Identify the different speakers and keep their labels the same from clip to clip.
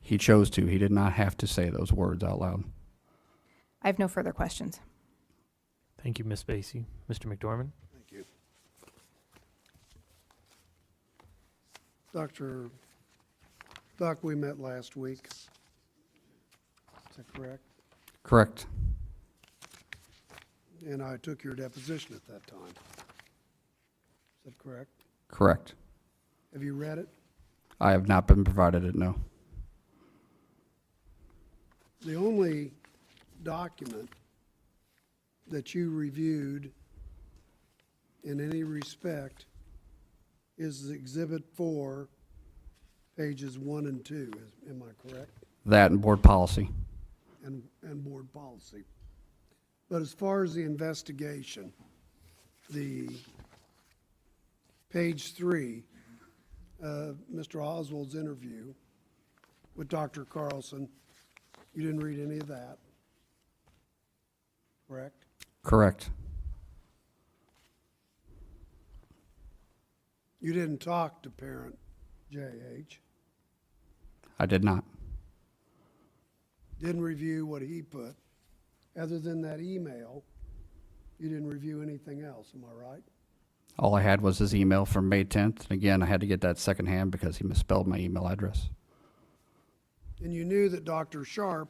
Speaker 1: He chose to. He did not have to say those words out loud.
Speaker 2: I have no further questions.
Speaker 3: Thank you, Ms. Basie. Mr. McDormand?
Speaker 4: Thank you. Dr. Doc, we met last week. Is that correct?
Speaker 1: Correct.
Speaker 4: And I took your deposition at that time. Is that correct?
Speaker 1: Correct.
Speaker 4: Have you read it?
Speaker 1: I have not been provided it, no.
Speaker 4: The only document that you reviewed in any respect is Exhibit 4, pages 1 and 2. Is- Am I correct?
Speaker 1: That and board policy.
Speaker 4: and, and board policy. But as far as the investigation, the page three, uh, Mr. Oswald's interview with Dr. Carlson, you didn't read any of that, correct?
Speaker 1: Correct.
Speaker 4: You didn't talk to parent JH,
Speaker 1: I did not.
Speaker 4: didn't review what he put. Other than that email, you didn't review anything else, am I right?
Speaker 1: All I had was his email from May 10th. And again, I had to get that secondhand because he misspelled my email address.
Speaker 4: And you knew that Dr. Sharp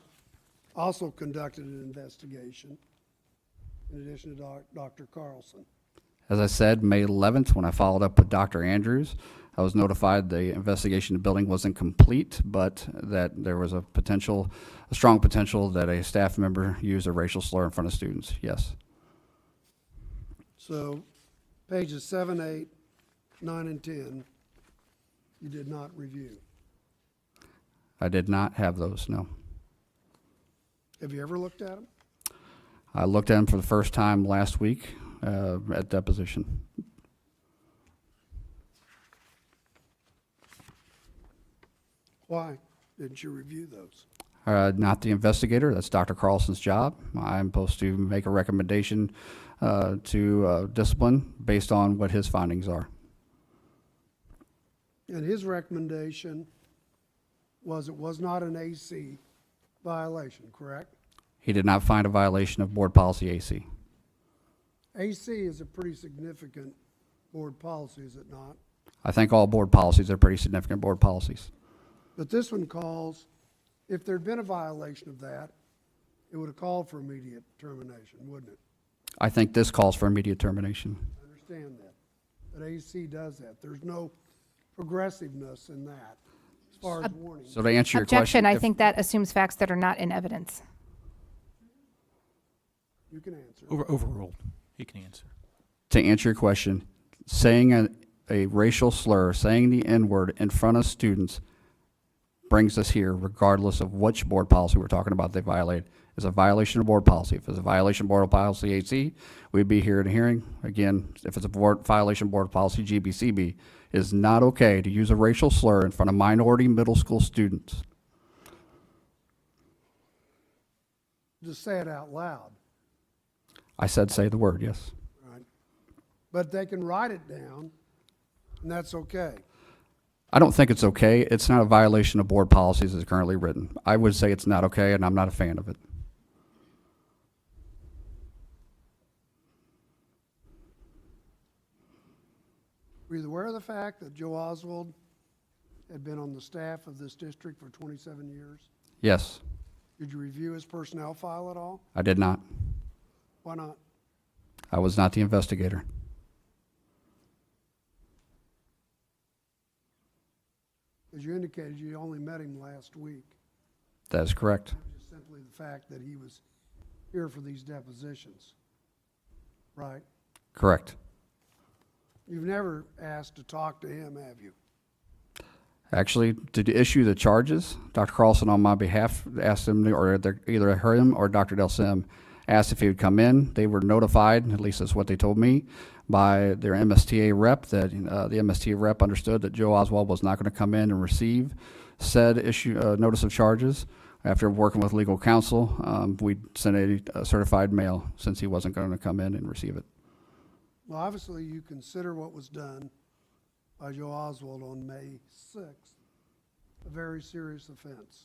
Speaker 4: also conducted an investigation in addition to doc- Dr. Carlson.
Speaker 1: As I said, May 11th, when I followed up with Dr. Andrews, I was notified the investigation of the building wasn't complete, but that there was a potential, a strong potential that a staff member used a racial slur in front of students. Yes.
Speaker 4: So pages seven, eight, nine, and 10, you did not review.
Speaker 1: I did not have those, no.
Speaker 4: Have you ever looked at them?
Speaker 1: I looked at them for the first time last week uh, at deposition.
Speaker 4: Why didn't you review those?
Speaker 1: Uh, Not the investigator, that's Dr. Carlson's job. I'm supposed to make a recommendation uh, to uh, discipline based on what his findings are.
Speaker 4: And his recommendation was it was not an AC violation, correct?
Speaker 1: He did not find a violation of Board Policy AC.
Speaker 4: AC is a pretty significant board policy, is it not?
Speaker 1: I think all board policies are pretty significant board policies.
Speaker 4: But this one calls, if there'd been a violation of that, it would have called for immediate termination, wouldn't it?
Speaker 1: I think this calls for immediate termination.
Speaker 4: I understand that. But AC does that. There's no progressiveness in that as far as warning.
Speaker 1: So to answer your question.
Speaker 2: Objection, I
Speaker 1: if-
Speaker 2: think that assumes facts that are not in evidence.
Speaker 4: You can answer.
Speaker 5: Over, overruled. He can answer.
Speaker 1: To answer your question, saying a, a racial slur, saying the N-word in front of students brings us here regardless of which board policy we're talking about they violated. It's a violation of board policy. If it's a violation of board policy AC, we'd be here in a hearing. Again, if it's a board, violation of board policy GBCB, it is not okay to use a racial slur in front of minority middle school students.
Speaker 4: Just say it out loud,
Speaker 1: I said, say the word, yes.
Speaker 4: right? But they can write it down, and that's okay.
Speaker 1: I don't think it's okay. It's not a violation of board policies as currently written. I would say it's not okay, and I'm not a fan of it.
Speaker 4: Were you aware of the fact that Joe Oswald had been on the staff of this district for 27 years?
Speaker 1: Yes,
Speaker 4: Did you review his personnel file at all?
Speaker 1: I did not.
Speaker 4: Why not?
Speaker 1: I was not the investigator.
Speaker 4: As you indicated, you only met him last week.
Speaker 1: That is correct.
Speaker 4: Just simply the fact that he was here for these depositions. Right?
Speaker 1: Correct.
Speaker 4: You've never asked to talk to him, have you?
Speaker 1: Actually, to issue the charges, Dr. Carlson on my behalf asked him, or either- either him or Dr. Del Sim asked if he would come in. They were notified, at least that's what they told me, by their MSTA rep, that uh, the MSTA rep understood that Joe Oswald was not going to come in and receive said issue, uh, notice of charges. After working with legal counsel, um, we sent a certified mail since he wasn't going to come in and receive it.
Speaker 4: Well, obviously, you consider what was done by Joe Oswald on May 6th a very serious offense.